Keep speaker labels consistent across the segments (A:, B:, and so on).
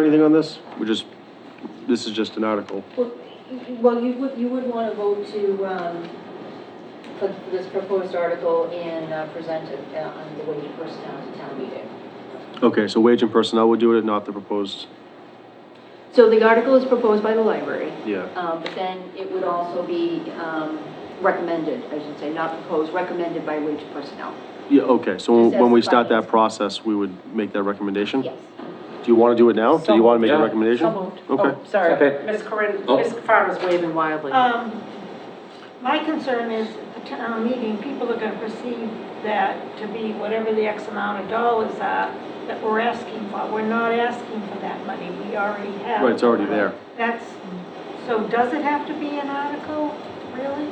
A: Anything on this? We're just, this is just an article.
B: Well, well, you would, you would want to vote to, um, put this proposed article in, uh, present it uh, on the way to first town to town meeting.
A: Okay, so wage and personnel would do it, not the proposed,
B: So the article is proposed by the library,
A: yeah.
B: um, but then it would also be, um, recommended, I should say, not proposed, recommended by wage personnel.
A: Yeah, okay, so when- when we start that
B: Assess
A: process, we would make that recommendation?
B: Yes.
A: Do you want to do it now? Do you want to make a recommendation?
C: So moved.
A: Okay. Oh.
C: Oh, Sorry,
D: Okay.
C: Ms. Corinne, Ms. Farmer's waving wildly.
E: Um, my concern is at the town meeting, people are gonna perceive that to be whatever the X amount of dollars are that we're asking for. We're not asking for that money, we already have.
A: Right, it's already there.
E: That's, so does it have to be an article, really?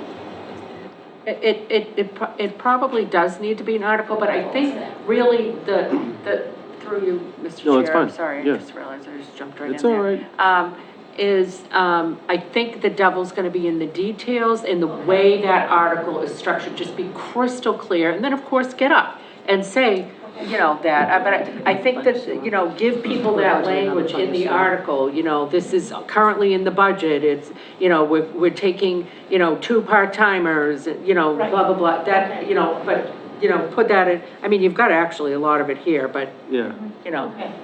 C: It, it- it, it, pro- it probably does need to be an article, but I think really the, the, through you, Mr. Chair.
A: No, it's
C: I'm
A: fine.
C: Sorry, I
A: Yeah.
C: just realized I just jumped right in there.
A: It's all right.
C: Um, is, um, I think the devil's gonna be in the details and the way that article is structured, just be crystal clear, and then of course, get up and say, you know, that, Uh, but I, I think that, you know, give people that language in the article, you know, this is currently in the budget, it's, you know, we're, we're taking, you know, two part-timers, you know, blah, blah, blah, that, you know, but, you know, put that in, I mean, you've got actually a lot of it here, but,
A: Yeah,
C: you know,
E: Okay,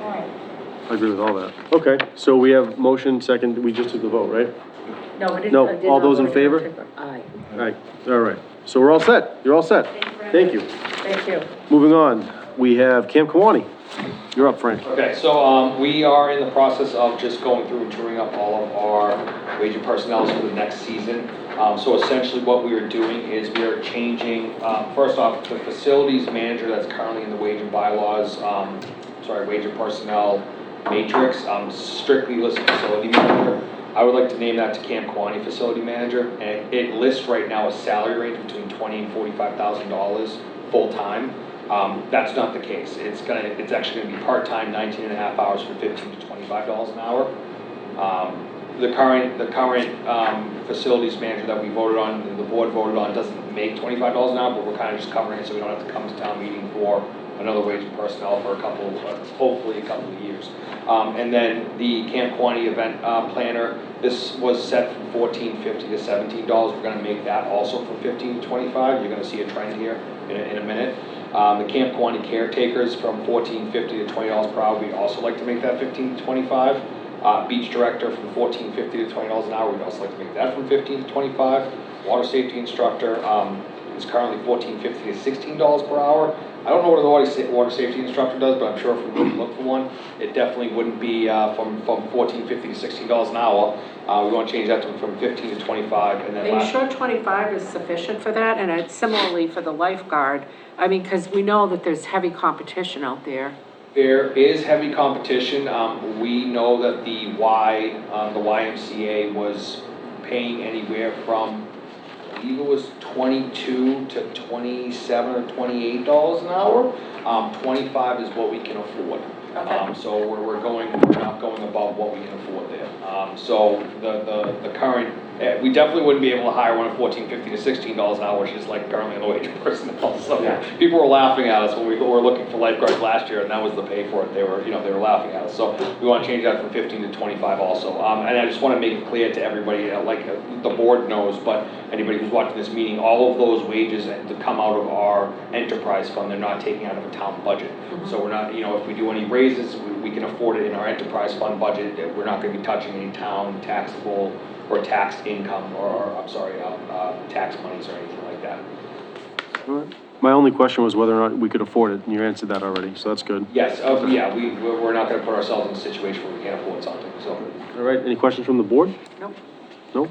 E: all right.
A: I agree with all that. Okay, so we have motion, second, we just took the vote, right?
C: no, but it.
A: No,
C: I did
A: all
C: not
A: those in
C: vote
A: favor?
C: Aye,
A: All right, all right. So we're all set, you're all set. Thank you.
C: thank you.
A: Moving on, we have Camp Kawani. You're up, Frank.
D: Okay, so, um, we are in the process of just going through and touring up all of our wage and personnel for the next season. Um, so essentially what we are doing is we are changing, um, first off, the facilities manager that's currently in the wage and bylaws, um, sorry, wage and personnel matrix, um, strictly lists facility manager. I would like to name that to Camp Kawani Facility Manager, and it lists right now a salary range between twenty and forty-five thousand dollars full-time. Um, that's not the case. It's gonna, it's actually gonna be part-time, 19 and a half hours for fifteen to twenty-five dollars an hour. Um, the current, the current, um, facilities manager that we voted on, that the board voted on, doesn't make twenty-five dollars an hour, but we're kinda just covering it, so we don't have to come to town meeting for another wage and personnel for a couple, uh, hopefully a couple of years. Um, and then the Camp Quaney event, uh, planner, this was set from fourteen fifty to seventeen dollars, we're gonna make that also from fifteen to twenty-five, you're gonna see a trend here in a, in a minute. Um, the Camp Quaney caretakers from fourteen fifty to twenty dollars per hour, we'd also like to make that fifteen to twenty-five. Uh, beach director from fourteen fifty to twenty dollars an hour, we'd also like to make that from fifteen to twenty-five. Water safety instructor, um, is currently fourteen fifty to sixteen dollars per hour. I don't know what the water sa- water safety instructor does, but I'm sure if we were to look for one, it definitely wouldn't be, uh, from, from fourteen fifty to sixteen dollars an hour. Uh, we wanna change that to from fifteen to twenty-five, and then
C: Are you
D: last.
C: sure twenty-five is sufficient for that? And it's similarly for the lifeguard, I mean, because we know that there's heavy competition out there.
D: There is heavy competition. Um, we know that the Y, um, the YMCA was paying anywhere from, I believe it was twenty-two to twenty-seven or twenty-eight dollars an hour. Um, twenty-five is what we can afford. Um, so we're, we're going, we're not going above what we can afford there. Um, so the, the, the current, eh, we definitely wouldn't be able to hire one at fourteen fifty to sixteen dollars an hour, which is like currently the wage of personnel, so. People were laughing at us when we were looking for lifeguards last year, and that was the pay for it, they were, you know, they were laughing at us, so we wanna change that from fifteen to twenty-five also. Um, and I just wanna make it clear to everybody, uh, like, uh, the board knows, but anybody who's watching this meeting, all of those wages that come out of our enterprise fund, they're not taking out of a town budget. So we're not, you know, if we do any raises, we, we can afford it in our enterprise fund budget, that we're not gonna be touching any town taxable or tax income, or, or, I'm sorry, uh, uh, tax monies or anything like that.
A: All right. My only question was whether or not we could afford it, and you answered that already, so that's good.
D: Yes, oh, yeah, we, we're we're not gonna put ourselves in a situation where we can't afford something, so.
A: All right, any questions from the board?
C: Nope,
A: No?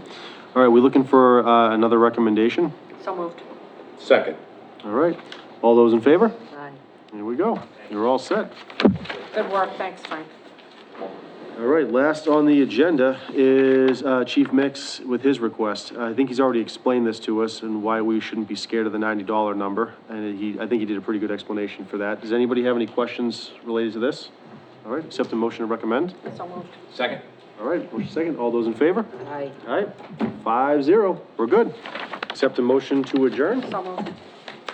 A: All right, we're looking for uh, another recommendation.
C: so moved.
F: Second.
A: All right, all those in favor?
C: Aye.
A: Here we go. You're all set.
C: Good work, thanks, Frank.
A: All right, last on the agenda is uh, Chief Mix with his request. I think he's already explained this to us and why we shouldn't be scared of the $90 number, and he, I think he did a pretty good explanation for that. Does anybody have any questions related to this? All right, accept a motion to recommend.
C: So moved.
F: Second.
A: All right, motion second, all those in favor?
C: Aye.
A: All right, five zero, we're good. Accept a motion to adjourn,
C: So moved.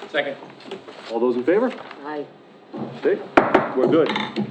F: Second.
A: all those in favor?
C: Aye.
A: Okay, we're good.